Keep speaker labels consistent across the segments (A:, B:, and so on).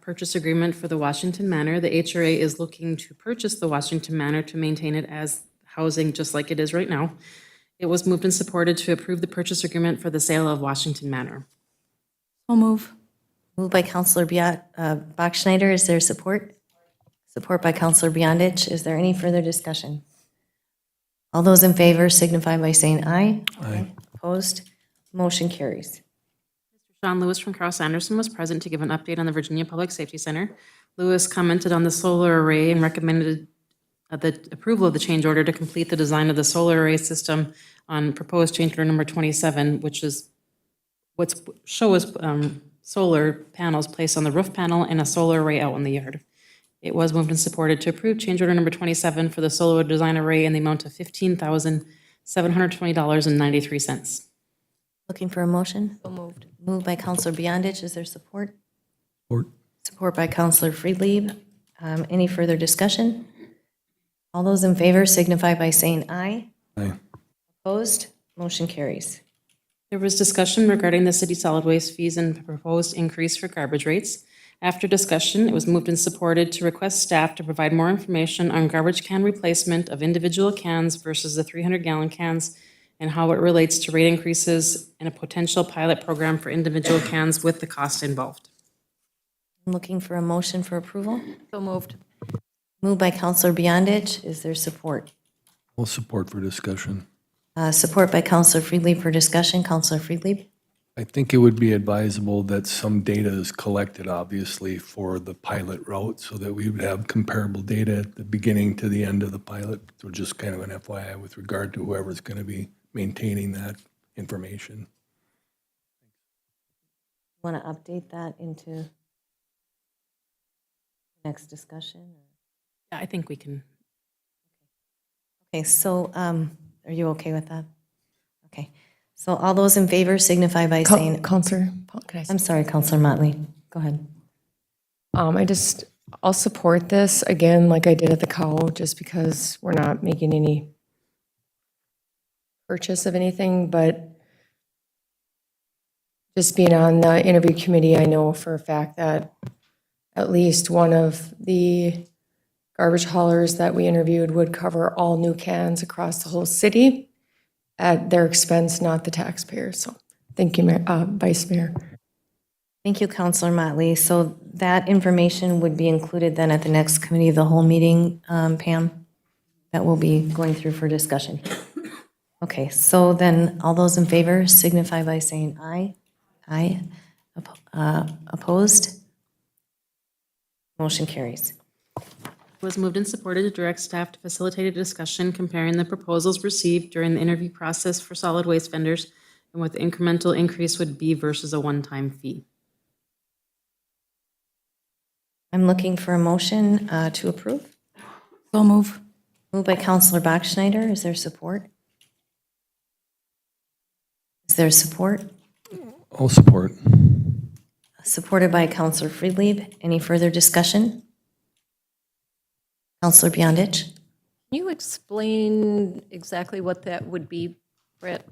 A: purchase agreement for the Washington Manor. The HRA is looking to purchase the Washington Manor to maintain it as housing, just like it is right now. It was moved and supported to approve the purchase agreement for the sale of Washington Manor.
B: So move.
C: Moved by Counselor Bia- uh, Bachschnider, is there support? Support by Counselor Beyondich, is there any further discussion? All those in favor signify by saying aye. Aye. Opposed? Motion carries.
A: Sean Lewis from Carl Sanderson was present to give an update on the Virginia Public Safety Center. Lewis commented on the solar array and recommended uh, the approval of the change order to complete the design of the solar array system on proposed change order number 27, which is what's, show us um, solar panels placed on the roof panel and a solar array out in the yard. It was moved and supported to approve change order number 27 for the solar design array in the amount of $15,720.93.
C: Looking for a motion? So moved. Moved by Counselor Beyondich, is there support?
D: Support.
C: Support by Counselor Friedlieb. Um, Any further discussion? All those in favor signify by saying aye.
D: Aye.
C: Opposed? Motion carries.
A: There was discussion regarding the city solid waste fees and proposed increase for garbage rates. After discussion, it was moved and supported to request staff to provide more information on garbage can replacement of individual cans versus the 300-gallon cans and how it relates to rate increases and a potential pilot program for individual cans with the cost involved.
C: I'm Looking for a motion for approval?
B: So moved.
C: Moved by Counselor Beyondich, is there support?
D: All support for discussion.
C: Uh, Support by Counselor Friedlieb for discussion, Counselor Friedlieb.
D: I think it would be advisable that some data is collected, obviously, for the pilot route, so that we would have comparable data at the beginning to the end of the pilot. So just kind of an FYI with regard to whoever's going to be maintaining that information.
C: Want to update that into next discussion?
A: I think we can.
C: Okay, so um, are you okay with that? Okay, so all those in favor signify by saying,
E: Counselor, Paul, could I say-
C: I'm sorry, Counselor Motley, go ahead.
E: um, I just, I'll support this again, like I did at the cow, just because we're not making any purchase of anything, but just being on the interview committee, I know for a fact that at least one of the garbage haulers that we interviewed would cover all new cans across the whole city at their expense, not the taxpayer. So, thank you, Mayor, uh, Vice Mayor.
C: Thank you, Counselor Motley. So that information would be included then at the next committee of the whole meeting, um, Pam, that we'll be going through for discussion. Okay, so then all those in favor signify by saying aye. Aye. Oppo- uh, Opposed? Motion carries.
A: was moved and supported to direct staff to facilitate a discussion comparing the proposals received during the interview process for solid waste vendors and what the incremental increase would be versus a one-time fee.
C: I'm looking for a motion uh, to approve.
B: So move.
C: Moved by Counselor Bachschnider. Is there support? Is there support?
D: All support.
C: Supported by Counselor Friedlieb. Any further discussion? Counselor Beyondich?
F: Can you explain exactly what that would be, Brett?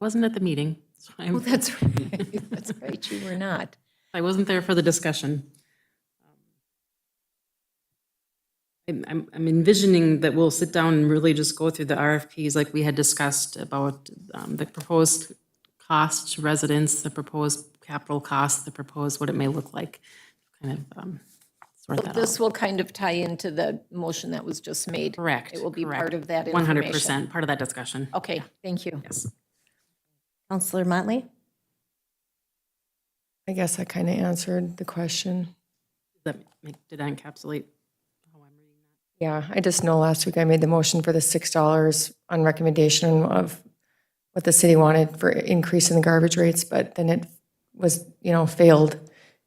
A: Wasn't at the meeting, so
F: Oh,
A: I'm,
F: that's right. That's right, you were not.
A: I wasn't there for the discussion. Um, I'm, I'm I'm envisioning that we'll sit down and really just go through the RFPs like we had discussed about um, the proposed cost to residents, the proposed capital cost, the proposed what it may look like, kind of um, sort that out.
F: This will kind of tie into the motion that was just made.
A: Correct.
F: It will be
A: correct.
F: part of that
A: One hundred
F: information. Oh.
A: percent, part of that discussion.
F: Okay, thank you.
A: Yes.
C: Counselor Motley?
E: I guess I kind of answered the question.
A: That make- Did I encapsulate?
E: Yeah, I just know last week I made the motion for the six dollars on recommendation of what the city wanted for increase in the garbage rates, but then it was, you know, failed.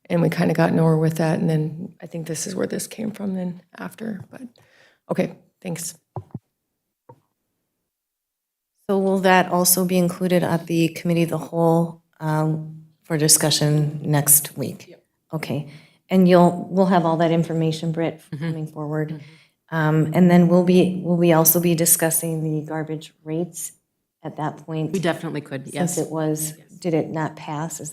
E: And we kind of got nowhere with that, and then I think this is where this came from then after, but, okay, thanks.
C: So will that also be included at the committee of the whole um, for discussion next week? Okay, and you'll, we'll have all that information, Britt, coming forward. Um, And then we'll be, will we also be discussing the garbage rates at that point?
A: We definitely could, yes.
C: Since it was, did it not pass? Is